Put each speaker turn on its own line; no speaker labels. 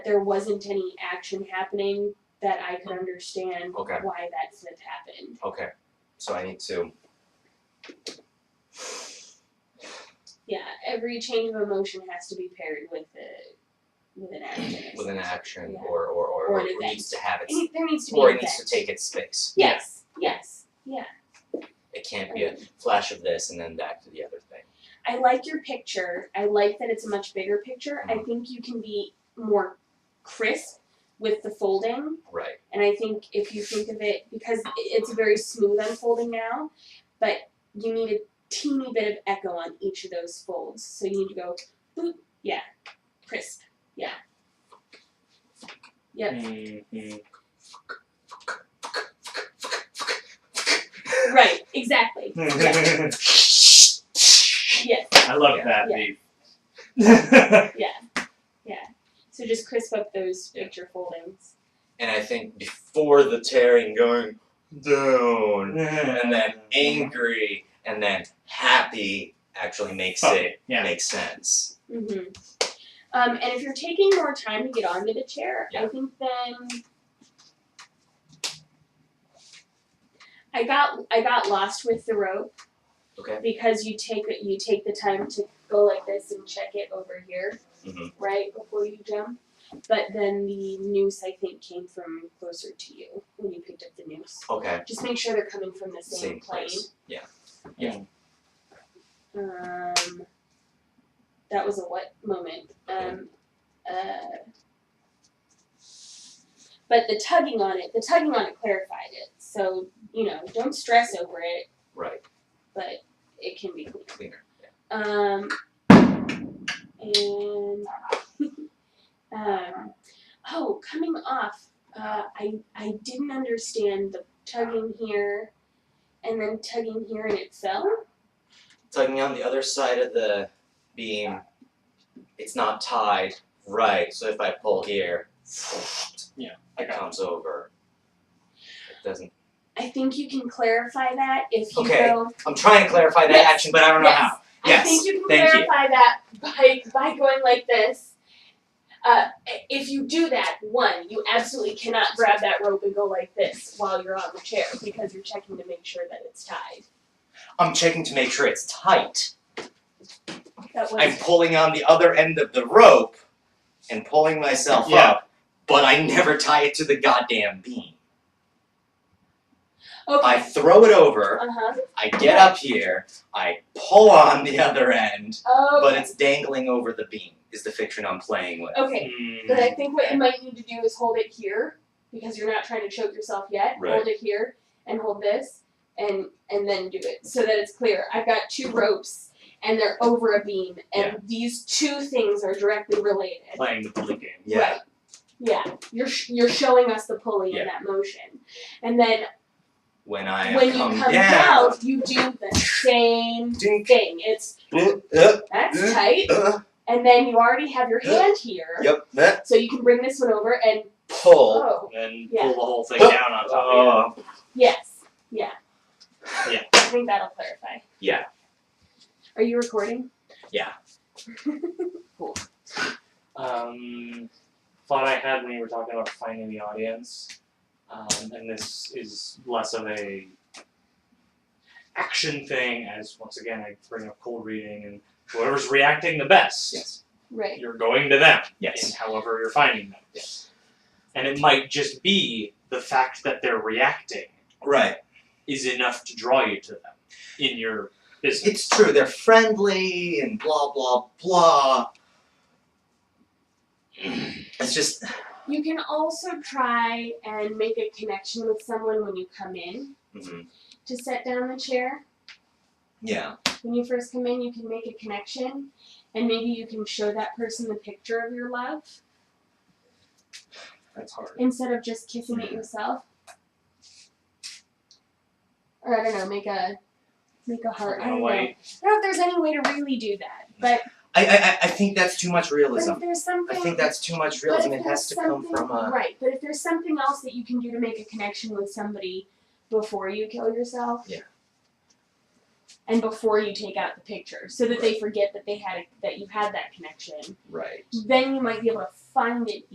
there wasn't any action happening that I could understand
Okay.
why that slip happened.
Okay, so I need to.
Yeah, every change of emotion has to be paired with a with an action.
With an action
Yeah.
or or or,
Or
or,
an
it needs to have
It
its
need- there needs to be
or
an
it needs to
event.
take its space.
Yes, yes.
It can't be a flash of this and then back to the other thing.
I like your picture. I like that it's a much bigger picture.
Mm-hmm.
I think you can be more crisp with the folding.
Right.
And I think if you think of it, because i- it's very smooth unfolding now, but you need a teeny bit of echo on each of those folds. So you need to go, boop, yeah, crisp, yeah. Yep,
Mm-hmm.
right, exactly. Yeah, yes,
I love
Yeah.
that
Yeah.
beat.
so just crisp up those
Yeah.
picture foldings.
And I think before the tearing going down and then angry and then happy actually makes it
Yeah.
make sense.
Mm-hmm. Um, and if you're taking more time to get onto the chair, I
Yeah.
think then I got I got lost with the rope.
Okay.
Because you take it, you take the time to go like this and check it over here,
Mhm.
right before you jump. But then the noose, I think, came from closer to you when you picked up the noose.
Okay.
Just make sure they're coming from the same,
Same place. Yeah.
Um, that was a what moment? Um, uh, but the tugging on it, the tugging on it clarified it. So you know, don't stress over it,
Right.
but it can be. clean.
Cleaner. Yeah.
Um, and um, oh, coming off, uh, I I didn't understand the tugging here, and then tugging here, and it fell.
tugging on the other side of the beam, it's not tied right. So if I pull here,
Yeah, I
it
got
comes over. It doesn't.
I think you can clarify that if you
Okay.
go.
I'm trying to clarify that
Yes,
action, but I don't know
yes. I
Yes,
think you can
thank you.
clarify that by by going like this. Uh, i- if you do that, one, you absolutely cannot grab that rope and go like this while you're on the chair because you're checking to make sure that it's tied.
how. I'm checking to make sure it's tight.
That was
I'm pulling on the other end of the rope and pulling myself
Yeah.
up, but I never tie it to the goddamn beam. I
okay.
throw it over,
Uh huh.
I get up here, I pull on the other end,
Okay.
but it's dangling over the beam, is the fiction I'm playing with.
okay.
Mm-hmm.
But I think what you might need to do is hold it here because you're not trying to choke yourself yet.
Right.
Hold it here and hold this and and then do it so that it's clear. I've got two ropes and they're over a beam and these two things are directly related.
Playing the bully game.
Yeah.
Right. Yeah. You're sh- you're showing us the pulley
Yeah.
in that motion. And then
when I
when
come,
you come
down.
out, you do the same
Dink.
thing. It's
Uh,
that's
Yeah.
tight.
uh,
And then you already have your
Yeah.
hand here.
yep, that
So you can bring this one over and
pull.
oh
And
Yeah.
pull the whole thing
Huh.
down on top
Oh,
of
yes. Yeah.
Yeah.
I think that'll clarify.
Yeah.
Are you recording?
Yeah.
you. Um, thought I had when you were talking about finding the audience. Um, and this is less of a action thing as once again I bring up cold reading and whoever's reacting the best.
Yes.
right.
You're going to them.
Yes.
in however you're finding them. And it might just be the fact that they're reacting
Right.
is enough to draw you to them in your business.
It's true. They're friendly and blah blah blah. It's just
You can also try and make a connection with someone when you come in
mhm,
to set down the chair.
yeah.
When you first come in, you can make a connection and maybe you can show that person the picture of your love
That's hard.
instead of just kissing it yourself. Or I don't know, make a make a heart. I
Kinda
don't know. I
like-
don't know if there's any way to really do that, but,
I, I I- I think that's too much
but
realism.
if there's
I
something
think that's too much
But if
realism. It has
there's
to come
something-
from a
right. But if there's something else that you can do to make a connection with somebody before you kill yourself,
Yeah.
and before you take out the picture, so that they forget that they had a, that you had that connection,
right.
then you might be able to find it